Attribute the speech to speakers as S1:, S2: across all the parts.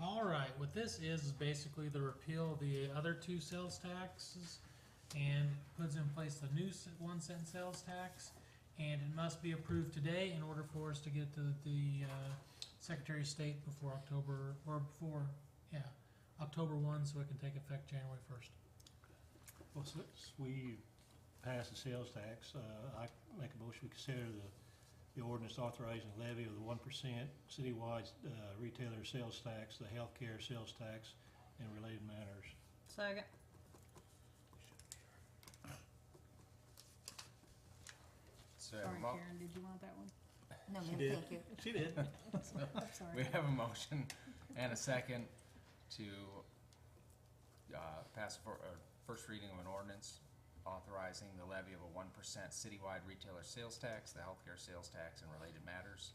S1: All right, what this is, is basically the repeal of the other two sales taxes and puts in place the new s- one cent sales tax. And it must be approved today in order for us to get to the, uh, Secretary of State before October, or before, yeah, October one, so it can take effect January first.
S2: Well, since we passed the sales tax, uh, I make a motion, we consider the, the ordinance authorizing the levy of the one percent citywide, uh, retailer sales tax, the healthcare sales tax, and related matters.
S3: Second.
S4: So,
S3: Sorry,
S4: mo-
S3: Karen, did you want that one?
S5: No,
S2: She
S5: ma'am,
S2: did.
S5: thank you.
S2: She did.
S3: I'm
S4: we
S3: sorry.
S4: have a motion and a second to uh, pass for, uh, first reading of an ordinance authorizing the levy of a one percent citywide retailer sales tax, the healthcare sales tax, and related matters.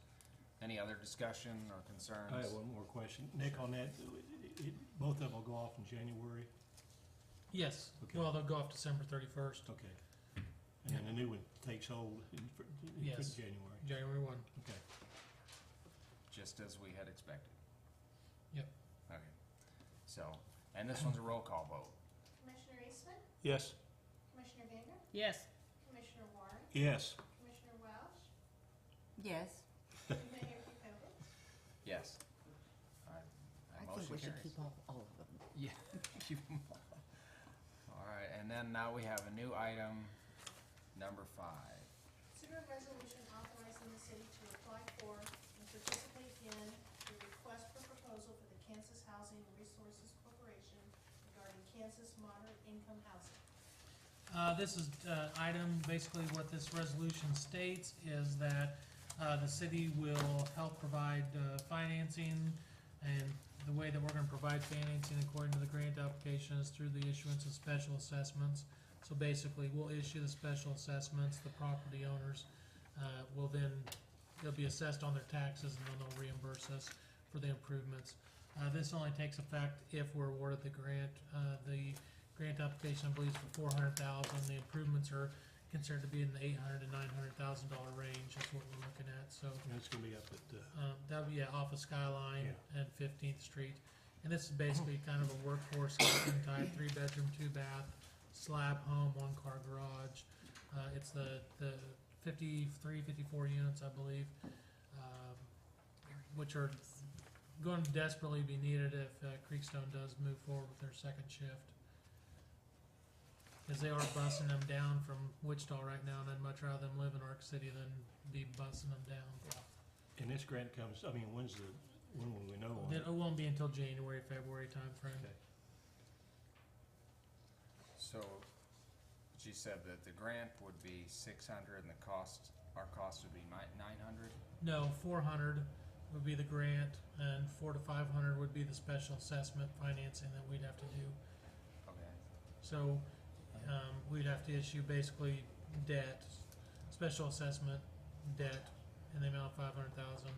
S4: Any other discussion or concerns?
S2: I have one more question. Nick, on that, it, it, both of them will go off in January?
S1: Yes,
S2: Okay.
S1: well, they'll go off December thirty-first,
S2: Okay. And then the new one takes hold in, fr- in fr-
S1: Yes.
S2: January?
S1: January one.
S2: Okay.
S4: Just as we had expected.
S1: Yep.
S4: Okay, so, and this one's a roll call vote.
S6: Commissioner Eastman,
S2: Yes.
S6: Commissioner Gander,
S3: Yes.
S6: Commissioner Warren,
S2: Yes.
S6: Commissioner Welch,
S5: Yes,
S6: and Mayor Kukovic.
S4: Yes. All right,
S5: I
S4: that
S5: think
S4: motion
S5: we should
S4: carries.
S5: keep all, all of them.
S4: Yeah, keep 'em all. All right, and then now we have a new item, number five.
S6: Consider a resolution authorizing the city to apply for and participate in the request for proposal for the Kansas Housing Resources Corporation regarding Kansas moderate income housing.
S1: Uh, this is, uh, item, basically what this resolution states is that, uh, the city will help provide, uh, financing. And the way that we're gonna provide financing according to the grant application is through the issuance of special assessments. So basically, we'll issue the special assessments, the property owners, uh, will then, they'll be assessed on their taxes and then they'll reimburse us for the improvements. Uh, this only takes effect if we're awarded the grant, uh, the grant application, I believe, is for four hundred thousand, the improvements are considered to be in the eight hundred to nine hundred thousand dollar range, is what we're looking at, so,
S2: And it's gonna be up at, uh,
S1: um, that'll be at Office Skyline and Fifteenth Street. And this is basically kind of a workforce kitchen type, three bedroom, two bath, slab home, one car garage. Uh, it's the, the fifty-three, fifty-four units, I believe, um, which are going to desperately be needed if, uh, Creekstone does move forward with their second shift. Cause they are bussing them down from Wichita right now, and I'd much rather them live in Arc City than be bussing them down.
S2: and this grant comes, I mean, when's the, when will we know on
S1: Then
S2: it?
S1: it won't be until January, February timeframe.
S2: Okay.
S4: So, she said that the grant would be six hundred and the cost, our cost would be nine, nine hundred?
S1: No, four hundred would be the grant, and four to five hundred would be the special assessment financing that we'd have to do.
S4: Okay.
S1: So, um, we'd have to issue basically debt, special assessment, debt, in the amount of five hundred thousand,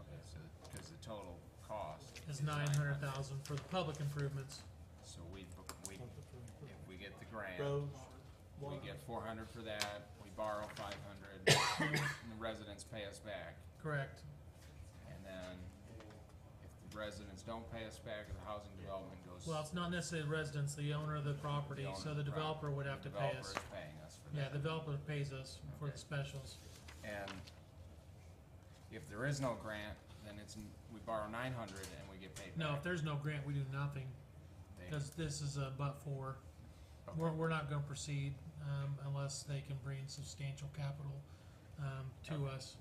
S4: Okay, so, cause the total cost.
S1: is
S4: is
S1: nine hundred thousand for the public improvements.
S4: So we, bu- we, if we get the grant,
S2: Roads,
S4: we get four hundred for that, we borrow five hundred, and the residents pay us back.
S1: Correct,
S4: And then, if the residents don't pay us back, the housing development goes.
S1: well, it's not necessarily residents, the owner of the property, so the
S4: Right.
S1: developer would have to pay us.
S4: Developer is paying us for that.
S1: Yeah, the developer pays us for the
S4: Okay.
S1: specials,
S4: And if there is no grant, then it's, n- we borrow nine hundred and we get paid
S1: no, if
S4: back.
S1: there's no grant, we do nothing.
S4: They-
S1: Because this is a but for,
S4: okay.
S1: we're, we're not gonna proceed, um, unless they can bring substantial capital, um, to us.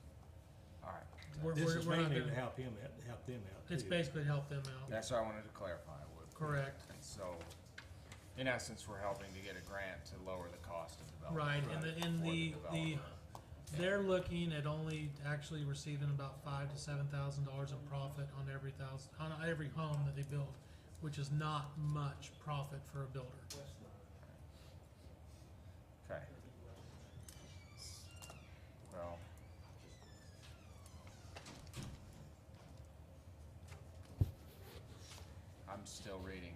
S4: All right.
S1: We're,
S2: This
S1: we're,
S2: is
S1: we're not
S2: mainly to
S1: gonna,
S2: help him, out- help them out.
S1: it's
S2: too.
S1: basically to help them out,
S4: That's what I wanted to clarify with.
S1: correct,
S4: And so, in essence, we're helping to get a grant to lower the cost of development.
S1: right, and the, and
S4: for
S1: the, the,
S4: developer.
S1: they're looking at only actually receiving about five to seven thousand dollars in profit on every thousand, on every home that they build, which is not much profit for a builder.
S4: Okay. Well. I'm still reading